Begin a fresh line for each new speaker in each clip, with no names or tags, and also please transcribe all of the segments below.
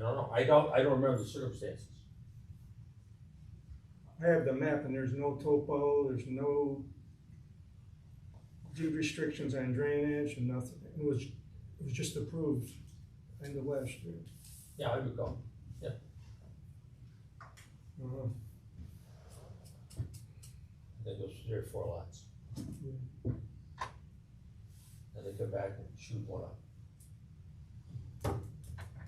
know, I don't, I don't remember the circumstances.
I have the map and there's no topo, there's no deed restrictions on drainage and nothing. It was, it was just approved end of last year.
Yeah, I recall.
Uh,
I think it was three or four lots. And they come back and shoot one up.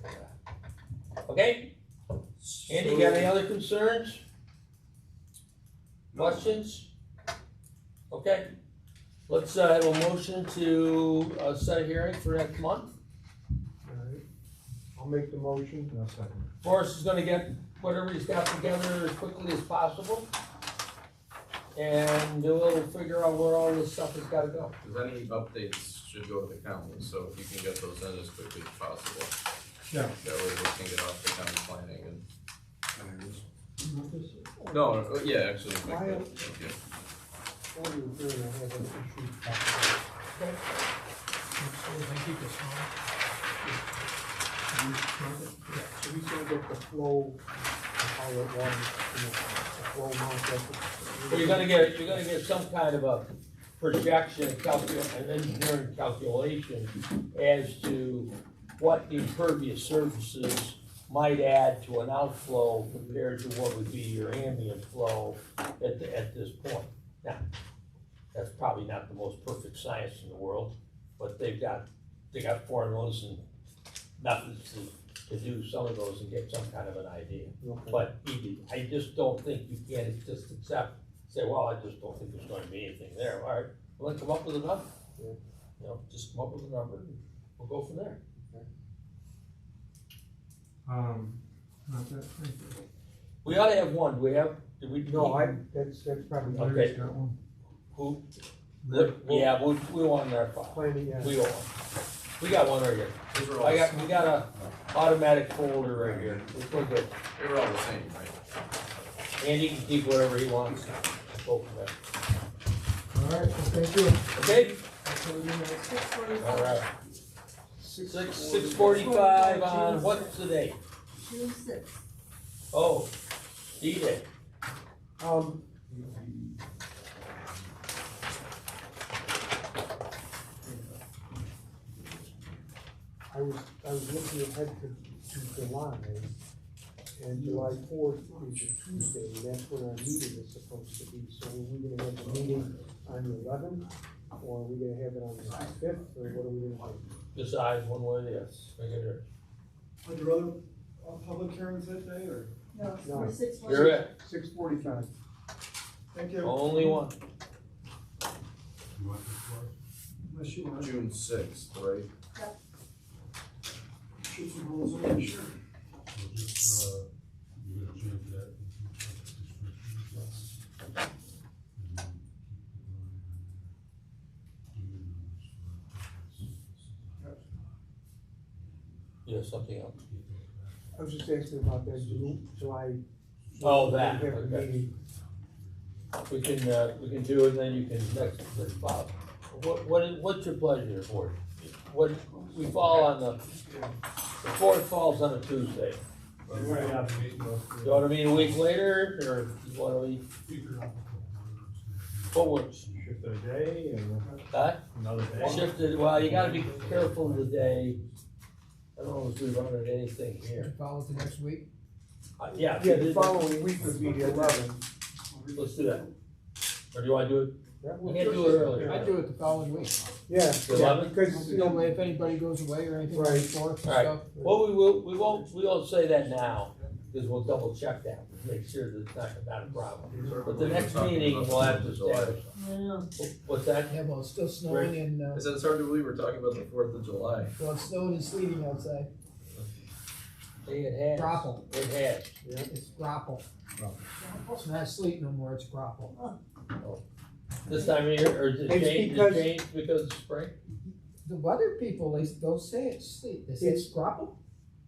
Yeah. Okay, Andy, you got any other concerns? Questions? Okay, let's, uh, have a motion to, uh, set a hearing for next month.
Alright, I'll make the motion. I'll second.
Forrest is gonna get whatever he's got together as quickly as possible. And we'll figure out where all this stuff has gotta go.
Cause any updates should go to the county, so if you can get those in as quickly as possible.
Yeah.
That way we can get off the county planning and, no, uh, yeah, actually, like
Why-
that, okay.
So we can get the flow, how it runs, you know, the flow amount that.
You're gonna get, you're gonna get some kind of a projection, calcul, an engineering calculation as to what the impervious surfaces might add to an outflow compared to what would be your ambient flow at, the- at this point. Now, that's probably not the most perfect science in the world, but they've got, they got formulas and methods to, to do some of those and get some kind of an idea.
Okay.
But you- I just don't think you can just accept, say, well, I just don't think there's gonna be anything there, all right, well, then come up with a number.
Yeah.
You know, just come up with a number, and we'll go from there.
Um, not that, thank you.
We ought to have one, do we have, do we?
No, I, that's, that's probably
Okay.
Larry's got one.
Who,
Larry-
yeah, we, we want in our file,
Planning, yeah.
we want, one. we got one right here,
These were all,
I
the
got,
s-
we got a automatic folder right here, we're good.
they were all the same, right?
Andy can keep whatever he wants, go from there,
Alright, well, thank you.
okay?
Six
All
forty-five,
right, six, six forty-five on, what's the date?
June sixth.
Oh, D-Day.
Um. I was, I was looking ahead to, to July, and July fourth is a Tuesday, and that's when our meeting is supposed to be, so are we gonna have the meeting on the eleventh? Or are we gonna have it on the fifth, or what are we gonna do?
decide one way or the other. Make it here.
Are there other uh, public hearings that day, or?
No, it's
No.
for six forty-five.
You're it,
Six forty-five.
Thank you,
only one.
unless you want to
June sixth, right?
shoot some holes in it, sure.
You have something else?
I was just asking about that Ju- July.
Oh, that,
We have a
okay.
meeting.
We can, uh, we can do it, and then you can next, next Bob. What, what, is- what's your pleasure, board? What, we fall on the, the fourth falls on a Tuesday. You wanna meet a week later, or you wanna meet, what works?
Shift the day and
Huh?
another
Shifted, well, you gotta be careful today. I don't know if we run into anything here.
Follow to next week?
Uh, yeah.
Yeah, the following week would be the eleventh.
Let's do that. Or do you wanna do it We can't do it
I
earlier.
do it the following week.
Yeah, yeah,
11th?
because, you
You know,
know,
if anybody goes away or anything like
Right.
that, and
Right.
stuff.
Well, we will, we won't, we won't say that now, because we'll double check that, make sure that it's not, not a problem. But the next meeting, we'll have to establish,
Yeah.
what's that?
Yeah, well, it's still snowing and,
I
uh,
said, it's hard to believe we're talking about the Fourth of July.
well, it's snowing and sleeting outside.
Hey, It has,
Grapple,
it has.
it's grapple. It's not sleet no more, it's grapple.
This time of year, or is it
It's
changed, it
because-
changed because of spring?
The weather people, they don't say it's sleet, they say it's grapple.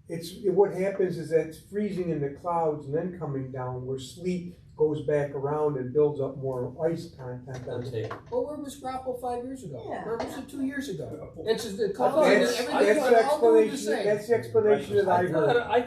it's, what happens is that it's freezing in the clouds and then coming down where sleet goes back around and builds up more ice content. on
Let's
it.
see.
Well, Oh, where was grapple five years ago?
Yeah.
Where was it two years ago? It's just the
thought-
color,
That's,
everything,
that's the
all doing the
explanation,
same.
that's the explanation that I
I
heard.
thought- I